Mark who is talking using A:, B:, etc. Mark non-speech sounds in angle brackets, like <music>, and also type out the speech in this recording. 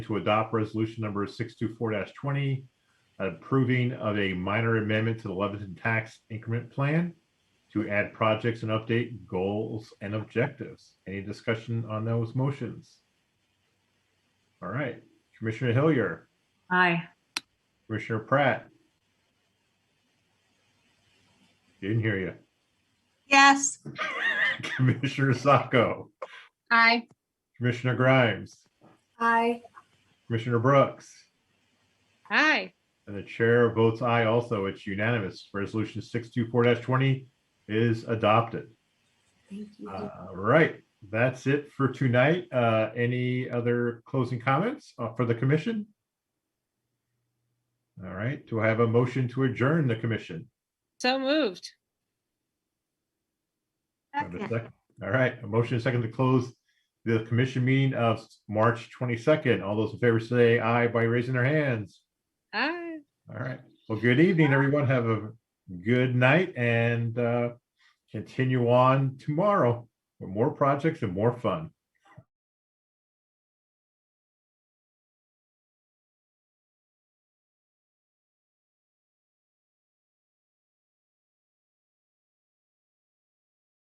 A: to adopt resolution number six two four twenty, approving of a minor amendment to the Lebanon Tax Increment Plan to add projects and update goals and objectives. Any discussion on those motions? All right, Commissioner Hillier,
B: Aye.
A: Commissioner Pratt. Didn't hear you. <laughs>
C: Yes.
A: Commissioner Sacco,
B: Aye.
A: Commissioner Grimes,
C: Aye.
A: Commissioner Brooks.
B: Aye.
A: And the chair votes aye also. It's unanimous. Resolution six two four twenty is adopted.
C: Thank you.
A: Uh, right, that's it for tonight. Uh, any other closing comments uh, for the commission? All right, do I have a motion to adjourn the commission?
B: So moved.
A: Do I have a sec- All right, a motion and second to close the commission meeting of March twenty-second. All those in favor say aye by raising their hands.
B: Aye.
A: All right. Well, good evening, everyone. Have a good night and uh, continue on tomorrow with more projects and more fun.